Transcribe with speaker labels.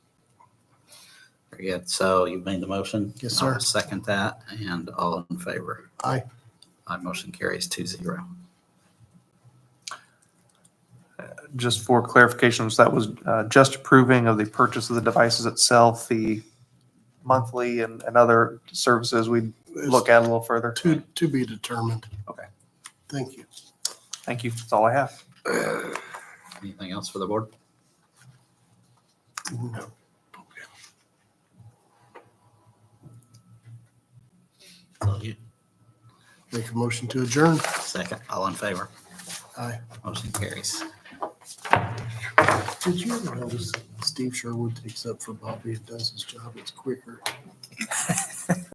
Speaker 1: yet, so you made the motion?
Speaker 2: Yes, sir.
Speaker 1: I'll Second that, and all in favor?
Speaker 2: Aye.
Speaker 1: My motion carries two zero.
Speaker 3: Just for clarifications, that was uh, just approving of the purchase of the devices itself, the monthly and, and other services we'd look at a little further.
Speaker 2: To, to be determined.
Speaker 3: Okay.
Speaker 2: Thank you.
Speaker 3: Thank you. That's all I have.
Speaker 1: Anything else for the board?
Speaker 2: No. Make a motion to adjourn.
Speaker 1: Second, all in favor?
Speaker 2: Aye.
Speaker 1: Motion carries.
Speaker 2: Did you ever notice Steve Sherwood takes up for Bobby and does his job? It's quicker.